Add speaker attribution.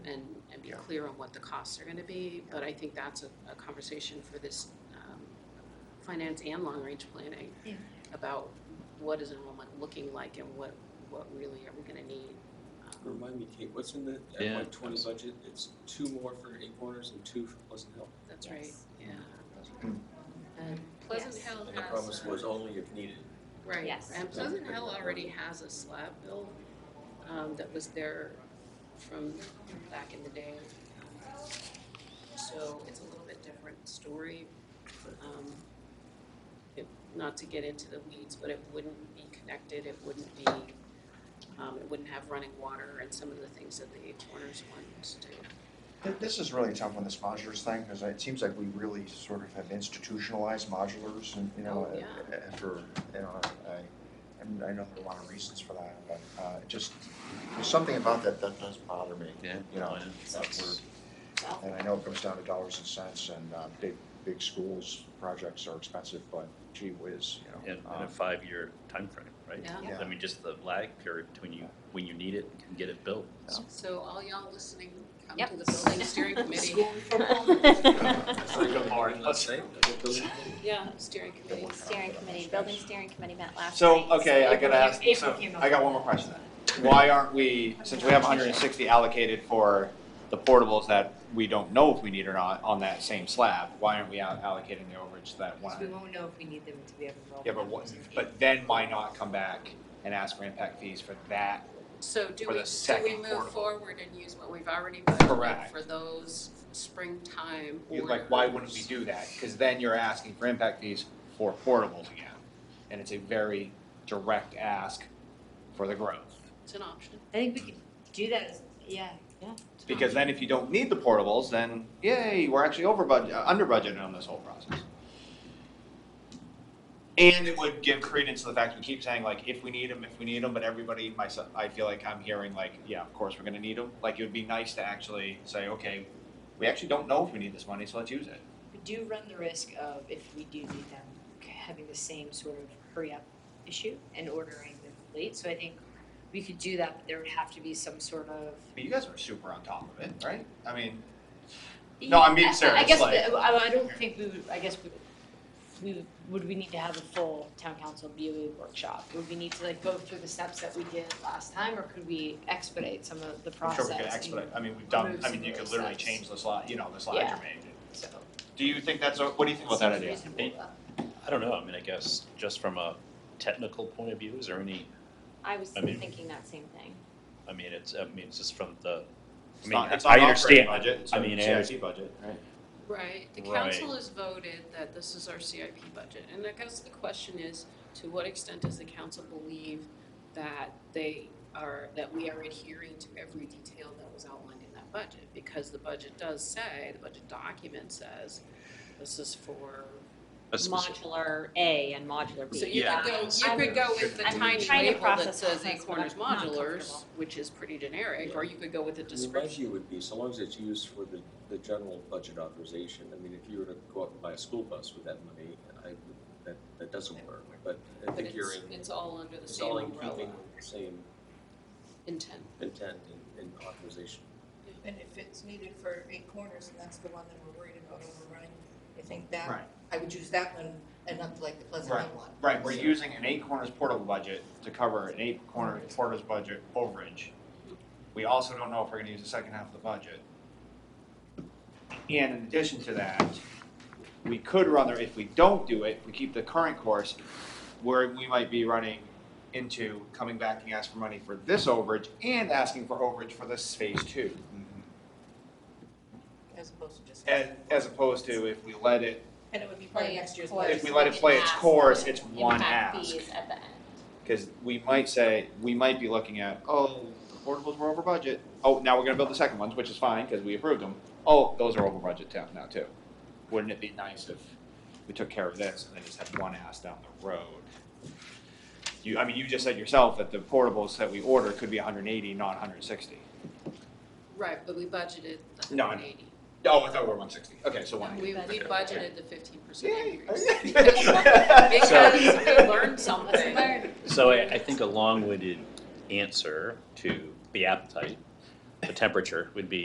Speaker 1: and, and be
Speaker 2: Yeah.
Speaker 1: clear on what the costs are gonna be. But I think that's a, a conversation for this, um, finance and long-range planning.
Speaker 3: Yeah.
Speaker 1: About what is enrollment looking like and what, what really are we gonna need? um,
Speaker 4: Remind me, Kate, what's in the
Speaker 5: Yeah.
Speaker 4: FY twenty budget? It's two more for Eight Corners and two for Pleasant Hill.
Speaker 1: Um, That's right,
Speaker 3: Yes.
Speaker 1: yeah. And Pleasant
Speaker 3: Yes.
Speaker 1: Hill
Speaker 2: And the
Speaker 1: has,
Speaker 2: promise was
Speaker 1: uh,
Speaker 2: only if needed.
Speaker 1: right,
Speaker 3: Yes.
Speaker 1: and Pleasant Hill already has a slab bill, um, that was there from back in the day. So it's a little bit different story, um, it, not to get into the weeds, but it wouldn't be connected, it wouldn't be, um, it wouldn't have running water and some of the things that the Eight Corners ones do.
Speaker 2: Th- This is really tough on this modulars thing, because it seems like we really sort of have institutionalized modulars and, you know,
Speaker 1: Oh, yeah.
Speaker 2: a- a- after, you know, I, and I know there are a lot of reasons for that, but, uh, it just, there's something about that that does bother me.
Speaker 5: Yeah.
Speaker 2: You know,
Speaker 5: Yeah.
Speaker 2: that we're- and I know it comes down to dollars and cents, and, uh, big, big schools projects are expensive, but gee whiz, you know.
Speaker 5: in, in
Speaker 2: um,
Speaker 5: a five-year time frame, right?
Speaker 1: Yeah.
Speaker 2: Yeah.
Speaker 5: I mean, just the lag period between you, when you need it and get it built.
Speaker 1: So all y'all listening, come
Speaker 3: Yep.
Speaker 1: to the building steering committee.
Speaker 4: Let's say.
Speaker 1: Yeah, steering committee.
Speaker 3: Steering committee, building steering committee met last night.
Speaker 6: So, okay, I
Speaker 3: if
Speaker 6: gotta
Speaker 3: we-
Speaker 6: ask,
Speaker 3: if
Speaker 6: so
Speaker 3: we came up
Speaker 6: I got one more
Speaker 3: with
Speaker 6: question then. Why aren't we, since we have hundred and sixty allocated for the portables that we don't know if we need or not on that same slab, why aren't we al- allocating the overage to that
Speaker 7: Because we
Speaker 6: one?
Speaker 7: won't know if we need them to be able to roll.
Speaker 6: Yeah, but what, but then why not come back and ask for impact fees for that?
Speaker 1: So do we,
Speaker 6: For the
Speaker 1: do we
Speaker 6: second
Speaker 1: move
Speaker 6: portable.
Speaker 1: forward and use what we've already budgeted
Speaker 6: Correct.
Speaker 1: for those springtime
Speaker 6: You-
Speaker 1: orders?
Speaker 6: Like, why wouldn't we do that? Cause then you're asking for impact fees for portables again. And it's a very direct ask for the growth.
Speaker 1: It's an option.
Speaker 7: I think we could do that as, yeah, yeah.
Speaker 6: Because then if you don't need the portables, then yay, we're actually over budget, uh, under budgeted on this whole process. And it would give credence to the fact we keep saying like, if we need them, if we need them, but everybody, myself, I feel like I'm hearing like, yeah, of course, we're gonna need them. Like, it would be nice to actually say, okay, we actually don't know if we need this money, so let's use it.
Speaker 7: We do run the risk of, if we do need them, having the same sort of hurry up issue and ordering them late. So I think we could do that, but there would have to be some sort of.
Speaker 6: But you guys are super on top of it, right? I mean, No, I'm being
Speaker 7: I- I- I
Speaker 6: serious,
Speaker 7: guess,
Speaker 6: like-
Speaker 7: the- I, I don't think we would, I guess we, we, would we need to have a full town council BOE workshop? Would we need to like go through the steps that we did last time, or could we expedite some of the
Speaker 6: I'm
Speaker 7: process?
Speaker 6: sure we could expedite, I mean, we've
Speaker 7: Remove
Speaker 6: done, I
Speaker 7: some
Speaker 6: mean, you
Speaker 7: of
Speaker 6: could
Speaker 7: those
Speaker 6: literally
Speaker 7: steps.
Speaker 6: change the slide, you know, the slides
Speaker 7: Yeah.
Speaker 6: you made.
Speaker 7: and- So.
Speaker 6: Do you think that's, a- what do you think about that idea?
Speaker 7: Reasonable,
Speaker 5: Hey.
Speaker 7: uh,
Speaker 5: I don't know, I mean, I guess just from a technical point of view, is there any,
Speaker 3: I was
Speaker 5: I mean-
Speaker 3: thinking that same thing.
Speaker 5: I mean, it's, I mean, it's just from the, I
Speaker 6: It's
Speaker 5: mean,
Speaker 6: not, it's
Speaker 5: I
Speaker 6: not
Speaker 5: understand.
Speaker 6: operating budget, it's
Speaker 5: I
Speaker 6: a
Speaker 5: mean, I
Speaker 6: CIP budget, right?
Speaker 1: Right, the
Speaker 5: Right.
Speaker 1: council has voted that this is our CIP budget, and I guess the question is, to what extent does the council believe that they are, that we are adhering to every detail that was outlined in that budget? Because the budget does say, the budget document says, this is for,
Speaker 5: a specific-
Speaker 3: Modular A and modular B.
Speaker 1: so you
Speaker 5: Yeah.
Speaker 1: could go, you
Speaker 3: I'm-
Speaker 1: could go with the
Speaker 3: I'm
Speaker 1: tiny
Speaker 3: trying to
Speaker 1: label that
Speaker 3: process
Speaker 1: says
Speaker 3: this,
Speaker 1: eight
Speaker 3: but I'm
Speaker 1: corners
Speaker 3: not
Speaker 1: modulars,
Speaker 3: comfortable.
Speaker 1: which is pretty generic, or you could go with a
Speaker 4: I mean, my
Speaker 1: description.
Speaker 4: view would be, so long as it's used for the, the general budget authorization, I mean, if you were to go out and buy a school bus with that money, I, would- that, that doesn't work, but I
Speaker 1: But
Speaker 4: think you're
Speaker 1: it's,
Speaker 4: in,
Speaker 1: it's all under the
Speaker 4: it's
Speaker 1: same
Speaker 4: all in
Speaker 1: umbrella
Speaker 4: keeping with the same
Speaker 1: intent.
Speaker 4: intent and, and authorization.
Speaker 8: And if it's needed for eight corners, and that's the one that we're worried about overrunning, I think
Speaker 6: Right.
Speaker 8: that, I would use that one and not like the Pleasant Hill one.
Speaker 6: Right, we're using an eight corners portable budget to cover an eight corners porters budget overage. We also don't know if we're gonna use the second half of the budget. And in addition to that, we could run the, if we don't do it, we keep the current course, where we might be running into coming back and ask for money for this overage and asking for overage for this phase two.
Speaker 8: As opposed to just.
Speaker 6: As, as opposed to if we let it,
Speaker 8: And it would be part of next year's budget.
Speaker 6: if we let it play its course, it's one ask.
Speaker 3: Impact fees at the end.
Speaker 6: Because we might say, we might be looking at, oh, the portables were over budget. Oh, now we're gonna build the second ones, which is fine, because we approved them. Oh, those are over budget too- now too. Wouldn't it be nice if we took care of this and then just had one ass down the road? You, I mean, you just said yourself that the portables that we order could be hundred and eighty, not hundred and sixty.
Speaker 1: Right, but we budgeted the
Speaker 6: No, I
Speaker 1: hundred
Speaker 6: know.
Speaker 1: eighty.
Speaker 6: Oh, I thought we were one sixty. Okay, so one eighty.
Speaker 1: We, we
Speaker 3: Okay.
Speaker 1: budgeted the fifteen percent
Speaker 6: Yay.
Speaker 1: increase.
Speaker 5: So-
Speaker 1: Because we learned something.
Speaker 5: So I, I think a long-winded answer to the appetite, the temperature would be